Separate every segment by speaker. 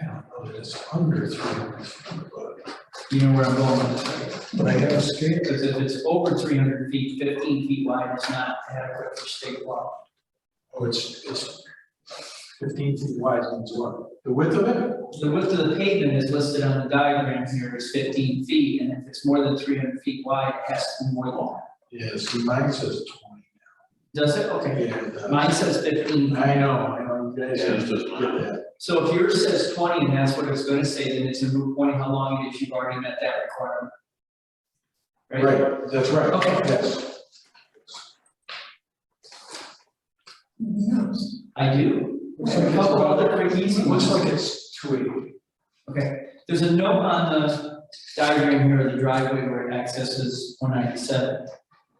Speaker 1: but it's under three hundred feet, but you know where I'm going with this, but I have a scale.
Speaker 2: Because if it's over three hundred feet, fifteen feet wide, it's not adequate for state law.
Speaker 1: Oh, it's, it's fifteen feet wide, and it's what, the width of it?
Speaker 2: The width of the pavement is listed on the diagram here as fifteen feet, and if it's more than three hundred feet wide, it has to be more long.
Speaker 1: Yeah, see, mine says twenty.
Speaker 2: Does it? Okay.
Speaker 1: Yeah, it does.
Speaker 2: Mine says fifteen.
Speaker 1: I know, I know, you guys
Speaker 3: Yeah, it's
Speaker 1: have to
Speaker 3: just
Speaker 1: get
Speaker 3: mine.
Speaker 1: that.
Speaker 2: So if yours says twenty, and that's what it's gonna say, then it's a moot point how long it is you've already met that requirement. Right?
Speaker 1: Right, that's right.
Speaker 2: Okay.
Speaker 1: Yes.
Speaker 2: I do.
Speaker 1: Looks like
Speaker 2: A
Speaker 1: it's
Speaker 2: couple
Speaker 1: about-
Speaker 2: other quick easy ones.
Speaker 1: Looks like it's two eighty.
Speaker 2: Okay, there's a note on the diagram here of the driveway where it accesses one ninety-seven.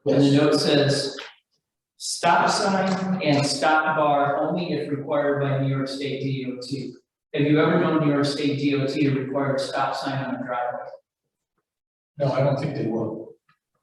Speaker 2: And the note says, stop sign and stop bar only if required by New York State DOT. Have you ever known New York State DOT to require a stop sign on a driveway?
Speaker 1: No, I don't think they will.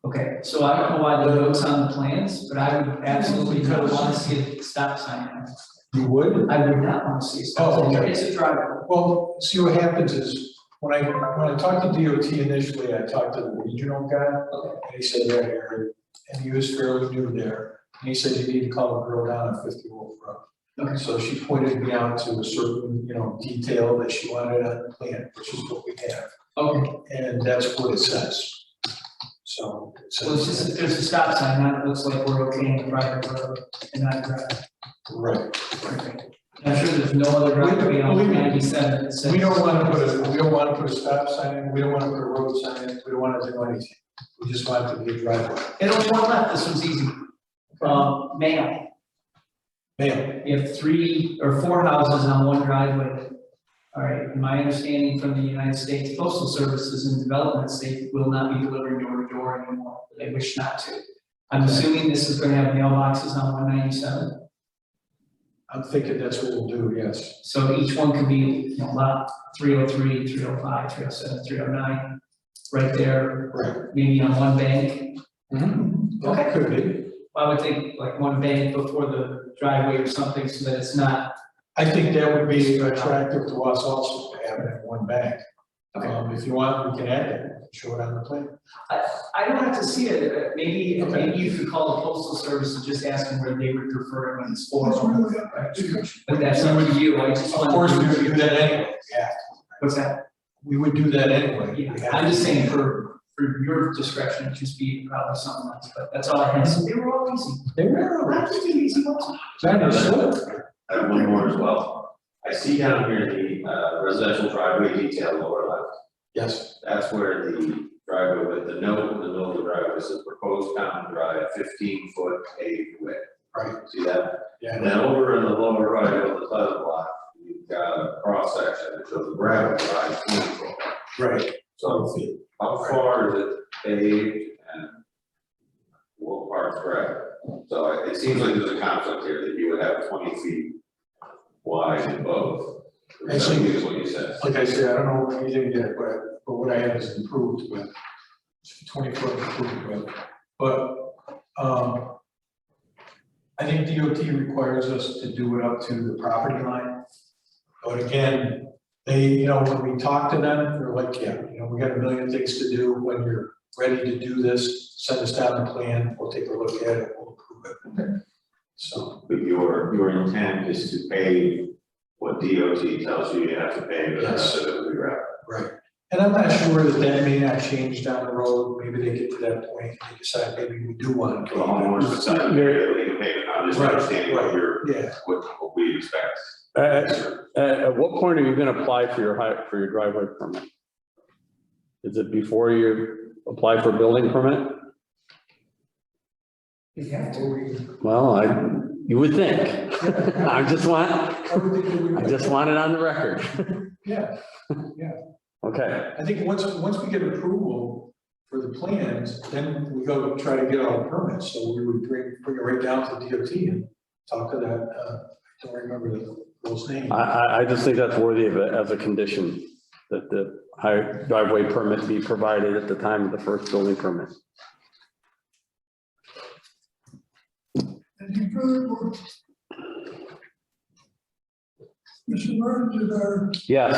Speaker 2: Okay, so I don't know why the note's on the plans, but I would absolutely not want to see a stop sign. on it.
Speaker 1: You would?
Speaker 2: I would not want to see a stop
Speaker 1: Oh,
Speaker 2: sign.
Speaker 1: okay.
Speaker 2: It's a driveway.
Speaker 1: Well, see what happens is, when I, when I talked to DOT initially, I talked to the regional guy,
Speaker 2: Okay,
Speaker 1: and he said, yeah, Harry," and he was fairly new there, and he said, you need to call a girl down on Fifty Wolf Road.
Speaker 2: Okay.
Speaker 1: So she pointed me out to a certain, you know, detail that she wanted on the plan, which is what we have,
Speaker 2: okay,
Speaker 1: and that's what it says. So. it
Speaker 2: so it's
Speaker 1: says-
Speaker 2: just, there's a stop sign, now it looks like we're okay in the private road and not a driveway.
Speaker 1: Right.
Speaker 2: I'm sure there's no other driveway
Speaker 1: We-
Speaker 2: on
Speaker 1: we-
Speaker 2: ninety-seven that says.
Speaker 1: We don't want to put a, we don't want to put a stop sign in, we don't want to put a road sign in, we don't want to do anything. We just want it to be a driveway.
Speaker 2: And on one left, this one's easy. Um, mail,
Speaker 1: Man,
Speaker 2: you have three or four houses on one driveway. All right, my understanding from the United States Postal Services and developments, they will not be delivering door to door anymore, they wish not to. I'm assuming this is gonna have mailboxes on one ninety-seven,
Speaker 1: I'm thinking that's what we'll do, yes.
Speaker 2: so each one could be, you know, lot 303, 305, 307, 309, right there,
Speaker 1: Right.
Speaker 2: maybe on one bank.
Speaker 1: Okay. Mm-hmm. Could be.
Speaker 2: I would think like one bank before the driveway or something so that it's not,
Speaker 1: I think that would be attractive to us also to have it in one bank. Um, if you want, we can add it, show it on the plan.
Speaker 2: I don't have to see it, uh, maybe,
Speaker 1: Okay.
Speaker 2: maybe you could call the postal service and just ask them where they would prefer it when it's formal.
Speaker 1: Of
Speaker 2: But that's up to you, I just want.
Speaker 1: course, we would do that anyway, yeah.
Speaker 2: What's that?
Speaker 1: We would do that anyway.
Speaker 2: Yeah,
Speaker 1: We have
Speaker 2: I'm
Speaker 1: to.
Speaker 2: just saying for, for your discretion, it'd just be probably something else, but that's all I had,
Speaker 1: Mm-hmm.
Speaker 2: so they were all easy.
Speaker 1: They were.
Speaker 2: Not just an easy ones.
Speaker 1: That is good.
Speaker 3: I have uh, one more as well. I see down here the uh, residential driveway detail lower left.
Speaker 1: Yes,
Speaker 3: That's where the driveway with the note in the middle of the driveway says proposed common drive fifteen foot paved width.
Speaker 1: Right.
Speaker 3: See that? And
Speaker 1: yeah,
Speaker 3: then over in the lower right of the Pleasant Lot, you've got a cross section that shows a gravel drive twenty foot.
Speaker 1: right.
Speaker 3: So how far is it paved and what part's gravel? So it seems like there's a conflict here that you would have twenty feet wide in both. Which I
Speaker 1: Actually-
Speaker 3: think is what you said.
Speaker 1: Like I said, I don't know what you did yet, but, but what I have is improved with, twenty foot improved with, but, um, I think DOT requires us to do it up to the property line. But again, they, you know, when we talk to them, they're like, yeah, you know, we got a million things to do, when you're ready to do this, send us down the plan, we'll take a look at it, we'll approve it. So,
Speaker 3: But your, your intent is to pave what DOT tells you you have to pave, and that's it, it'll be gravel.
Speaker 1: right, and I'm not sure that that may not change down the road, maybe they get to that point, and they decide maybe we do want to.
Speaker 3: The homeowners decide if they can pave it, I'm just
Speaker 1: Right,
Speaker 3: understanding what
Speaker 1: right.
Speaker 3: you're,
Speaker 1: Yeah,
Speaker 3: what what we expect.
Speaker 4: At, Uh, at- at what point are you gonna apply for your hi, for your driveway permit? Is it before you apply for building permit?
Speaker 2: You have to.
Speaker 4: Well, I, you would think. I just want,
Speaker 1: I would think that we-
Speaker 4: I just want it on the record.
Speaker 1: Yeah,
Speaker 4: Okay,
Speaker 1: I think once, once we get approval for the plans, then we go try to get all the permits, so we would bring, bring it right down to DOT and talk to that, uh, I don't remember the girl's name.
Speaker 4: I, I, I just think that's worthy of it as a condition, that the hi- driveway permit be provided at the time of the first building permit.
Speaker 5: Any further work? Mr. Burns, is our
Speaker 4: Yes.